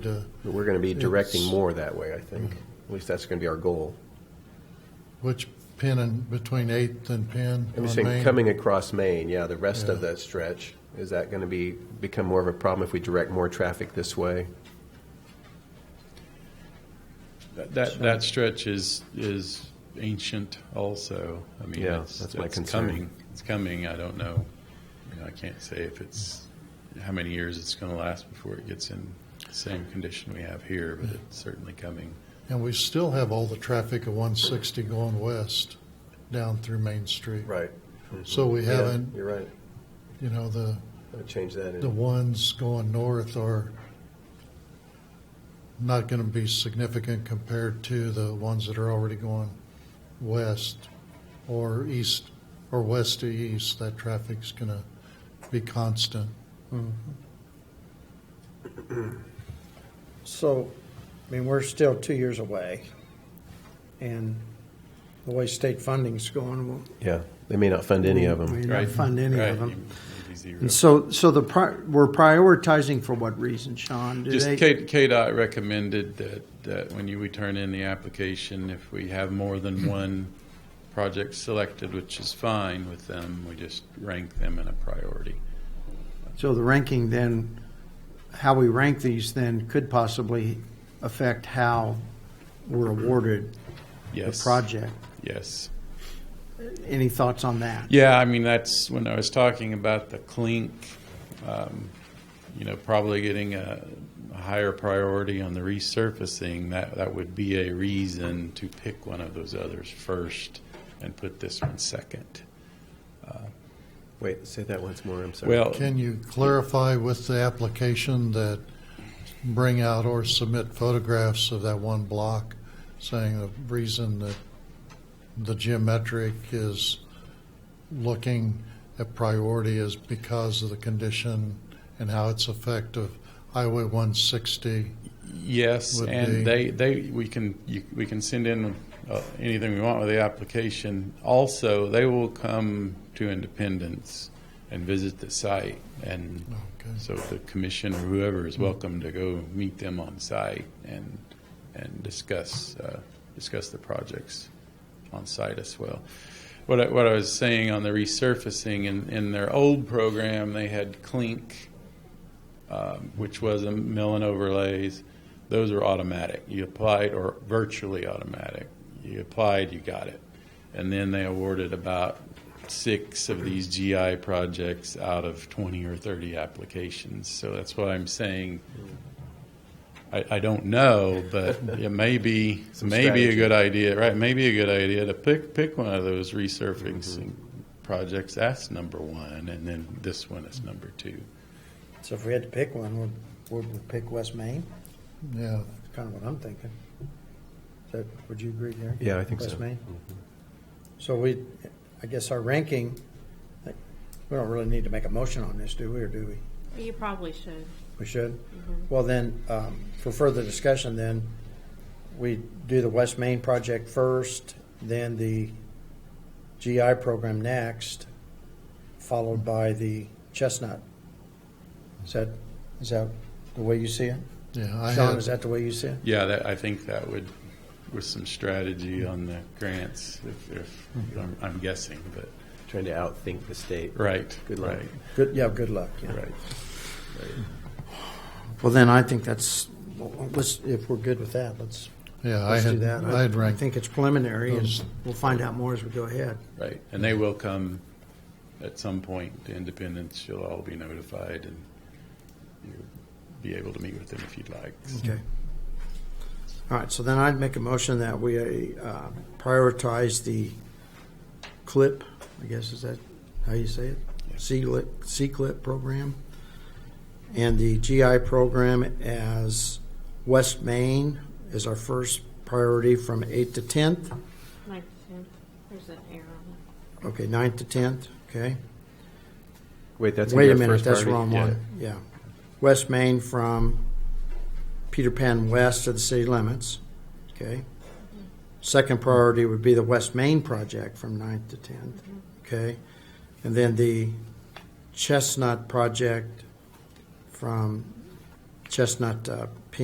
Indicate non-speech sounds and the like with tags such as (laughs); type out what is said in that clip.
uh, But We're going to be directing It's- more that way, I think. At least that's going to be our goal. which Penn and, between Eighth and Penn I'm on just Main. saying, coming across Maine, yeah, the rest of Yeah. that stretch, is that going to be, become more of a problem if we direct more traffic this way? That- That, that stretch is, is ancient also. I mean, Yeah, it's, that's my it's concern. coming. It's coming. I don't know. You know, I can't say if it's, how many years it's going to last before it gets in the same condition we have here, but it's certainly coming. And we still have all the traffic of one sixty going west down through Main Street. Right. So we Yeah, haven't, You're right. you know, the, Gotta Change that the in. ones going north are not gonna be significant compared to the ones that are already going west or east, or west to east, that traffic's gonna be constant. So, I mean, we're still two years away, and the way state funding's going, we'll. Yeah, they may not fund any of We them. may Right. not fund any Right, of them. you- maybe zero. And so, so the, pri- we're prioritizing for what reason, Sean? Do Just they- K- KDOT recommended that, that when you return in the application, if we have more (clears throat) than one project selected, which is fine with them, we just rank them in a priority. So the ranking then, how we rank these then could possibly affect how we're awarded the Yes. project. Yes. Any thoughts on that? Yeah, I mean, that's when I was talking about the clink, um, you know, probably getting a, a higher priority on the resurfacing. That, that would be a reason to pick one of those others first and put this one second. Wait, say that once more, I'm sorry. Well, Can you clarify with the application that bring out or submit photographs of that one block, saying the reason that the geometric is looking at priority is because of the condition and how it's effective Highway 160? Yes, would be- and they, they, we can, you- we can send in uh, anything we want with the application. Also, they will come to Independence and visit the site, and Okay. so the commission or whoever is welcome to go meet them on site and, and discuss, uh, discuss the projects on site as well. What I, what I was saying on the resurfacing, in, in their old program, they had clink, um, which was a mill and overlays. Those were automatic. You applied, or virtually automatic. You applied, you got it. And then they awarded about six of these GI projects out of 20 or 30 applications. So that's what I'm saying. I, I don't know, but it may be, (laughs) Some maybe a strategy. good idea, right? Maybe a good idea to pick, pick one of those resurfacing Mm-hmm. projects. That's number one, and then this one is number two. So if we had to pick one, would, would we pick West Main? Yeah, That's kind of what I'm thinking. Is that, would you agree there? Yeah, I think so. Mm-hmm. West Main? So we, I guess our ranking, like, we don't really need to make a motion on this, do we, or do we? You probably should. We should? Well, then, um, for further discussion, then, we do the West Main project first, then the GI program next, followed by the Chestnut. Is that, is that the way you see it? yeah. I Sean, had- is that the way you see it? Yeah, that, I think that would, with some strategy on the grants, if, if, Mm-hmm. I'm, I'm guessing, but, Trying to outthink the state. right. Good luck. right, Good, yeah, good luck, yeah. Right. Well, then I think that's, let's, if we're good with that, let's, Yeah, I let's do had, that. I had I ranked think it's preliminary, and those- we'll find out more as we go ahead. Right, and they will come at some point to Independence, you'll all be notified, and you'll be able to meet with them if you'd like. Okay. All right, so then I'd make a motion that we uh, prioritize the CLIP, I guess is that how you say it? C-LIP, C-CLIP program, and the GI program as West Main is our first priority from 8th to 10th. Like, yeah, there's an error on it. Okay, 9th to 10th, okay? Wait, that's. in Wait a your minute, first that's the priority? wrong Yeah. one, yeah. West Main from Peter Pan West to the city limits, okay? Second priority would be the West Main project from 9th to 10th, okay? And then the Chestnut project from Chestnut uh,